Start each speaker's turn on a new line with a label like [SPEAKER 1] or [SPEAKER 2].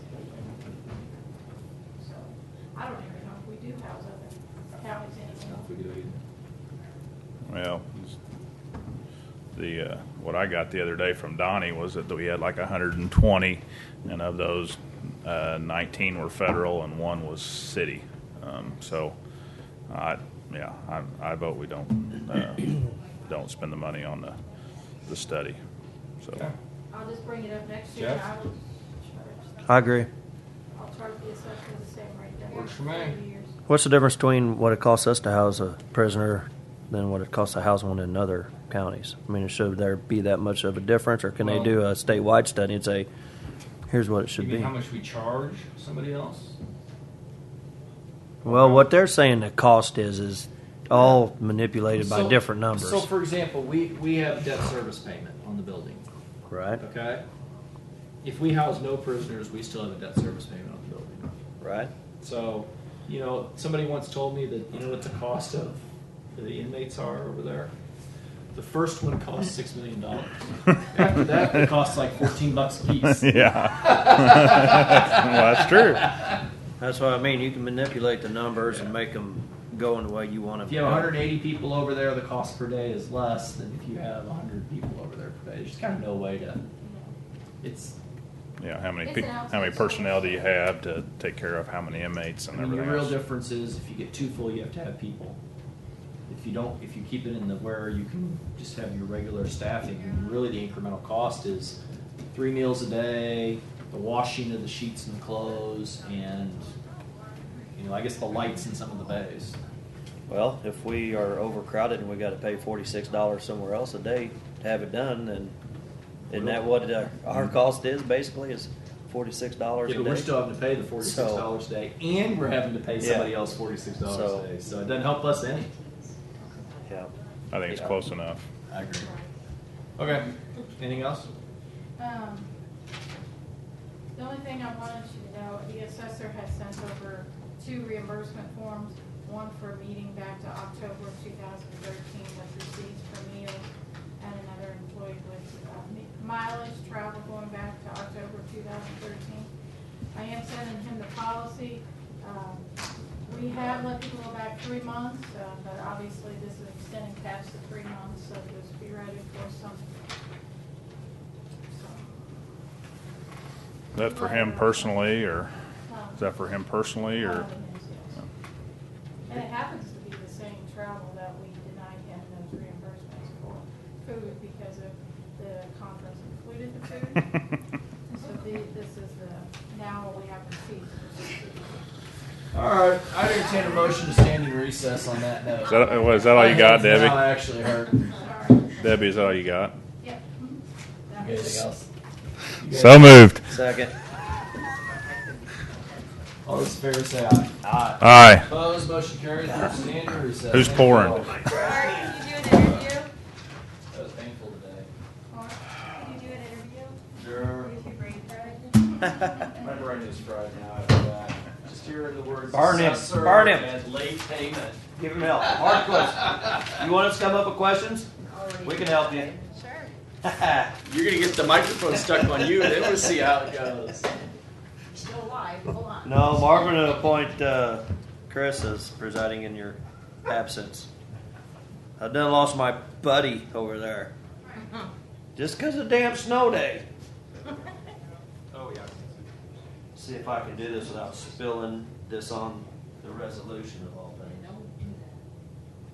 [SPEAKER 1] the, uh, what I got the other day from Donnie was that we had like hundred and twenty, and of those, uh, nineteen were federal and one was city. Um, so, I, yeah, I, I vote we don't, uh, don't spend the money on the, the study, so.
[SPEAKER 2] Okay.
[SPEAKER 3] I'll just bring it up next year, and I
[SPEAKER 2] Jeff?
[SPEAKER 3] will charge,
[SPEAKER 4] I agree.
[SPEAKER 3] I'll charge the assessor the same rate that.
[SPEAKER 2] Works for me.
[SPEAKER 3] years.
[SPEAKER 4] What's the difference between what it costs us to house a prisoner than what it costs to house one in other counties? I mean, should there be that much of a difference, or can
[SPEAKER 2] Well-
[SPEAKER 4] they do a statewide study and say, here's what it
[SPEAKER 2] You
[SPEAKER 4] should
[SPEAKER 2] mean
[SPEAKER 4] be?
[SPEAKER 2] how much we charge somebody else?
[SPEAKER 4] Well, what they're saying the cost is is all manipulated by
[SPEAKER 5] So-
[SPEAKER 4] different numbers,
[SPEAKER 5] So, for example, we, we have debt service payment on the building,
[SPEAKER 4] right?
[SPEAKER 5] okay? If we house no prisoners, we still have a debt service payment on the building.
[SPEAKER 4] Right.
[SPEAKER 5] So, you know, somebody once told me that, you know what the cost of the inmates are over there? The first one costs six million dollars. After that, it costs like fourteen bucks a piece.
[SPEAKER 1] Yeah. well, that's true.
[SPEAKER 4] That's what I mean. You can manipulate the numbers and make them go in the way you want them.
[SPEAKER 5] If you have 180 people over there, the cost per day is less than if you have 100 people over there per day. There's just kind of no way to. It's
[SPEAKER 1] Yeah, how many
[SPEAKER 3] It's
[SPEAKER 1] people,
[SPEAKER 3] an
[SPEAKER 1] how many
[SPEAKER 3] outside
[SPEAKER 1] personnel do
[SPEAKER 3] service.
[SPEAKER 1] you have to take care of how many inmates
[SPEAKER 5] I
[SPEAKER 1] and
[SPEAKER 5] mean, the
[SPEAKER 1] everything
[SPEAKER 5] real
[SPEAKER 1] else?
[SPEAKER 5] difference is if you get too full, you have to have people. If you don't, if you keep it in the where you can just have your regular staffing, really the incremental cost is three meals a day, the washing of the sheets and clothes, and you know, I guess the lights in some of the bays.
[SPEAKER 4] Well, if we are overcrowded and we got to pay forty-six dollars somewhere else a day to have it done, then isn't that what uh, our cost is basically is forty-six dollars
[SPEAKER 5] Yeah,
[SPEAKER 4] a
[SPEAKER 5] but we're
[SPEAKER 4] day?
[SPEAKER 5] still having to pay the forty-six dollars a day, and we're having to pay
[SPEAKER 4] Yeah.
[SPEAKER 5] somebody else forty-six dollars
[SPEAKER 4] So-
[SPEAKER 5] a day, so it doesn't help us any.
[SPEAKER 4] Yeah.
[SPEAKER 1] I think it's
[SPEAKER 5] Yeah.
[SPEAKER 1] close enough.
[SPEAKER 5] I agree. Okay, anything else?
[SPEAKER 3] Um, The only thing I wanted you to know, the assessor has sent over two reimbursement forms, one for meeting back to October of 2013 with receipts for meals, and another employee with uh, mi- mileage travel going back to October of 2013. I am sending him the policy. Um, We have let people go back three months, uh, but obviously this is extending past the three months, so just be ready for some, some
[SPEAKER 1] Is that for him personally, or is that for him personally, or?
[SPEAKER 3] Um, And it happens to be the same travel that we denied him those reimbursements for food because of the conference included the food. So the- this is the, now we have receipts.
[SPEAKER 5] All right, I entertain a motion to stand in recess on that note.
[SPEAKER 1] Is that, what, is that all you got,
[SPEAKER 5] Now
[SPEAKER 1] Debbie?
[SPEAKER 5] I actually heard.
[SPEAKER 3] Sorry.
[SPEAKER 1] Debbie, is that all you got?
[SPEAKER 3] Yep. mm-hmm. That was-
[SPEAKER 5] Anything else? You
[SPEAKER 1] So
[SPEAKER 5] guys-
[SPEAKER 1] moved.
[SPEAKER 4] Second.
[SPEAKER 5] All those in favor say aye. Aye.
[SPEAKER 1] Aye.
[SPEAKER 5] Opposed, motion carries, we're standing in recess.
[SPEAKER 1] Who's
[SPEAKER 5] Thank you
[SPEAKER 1] pouring?
[SPEAKER 5] all. That
[SPEAKER 6] Mark, did you do an interview?
[SPEAKER 5] was painful today.
[SPEAKER 3] Or-
[SPEAKER 6] Did you do an interview?
[SPEAKER 5] Sure.
[SPEAKER 6] With your brain fried?
[SPEAKER 5] My brain is fried now after that. Just hearing the words.
[SPEAKER 4] Burn him.
[SPEAKER 5] assessor
[SPEAKER 4] Burn him.
[SPEAKER 5] And late payment.
[SPEAKER 4] Give him help. Hard question. You want us to come up with questions? We can help you.
[SPEAKER 6] Sure.
[SPEAKER 5] You're gonna get the microphone stuck on you, then we'll see how it goes.
[SPEAKER 6] Still alive, hold on.
[SPEAKER 4] No, Marvin will appoint uh, Chris as presiding in your absence. I done lost my buddy over there. Just 'cause of damn snow day.
[SPEAKER 5] Oh, yeah.
[SPEAKER 4] See if I can do this without spilling this on the resolution of all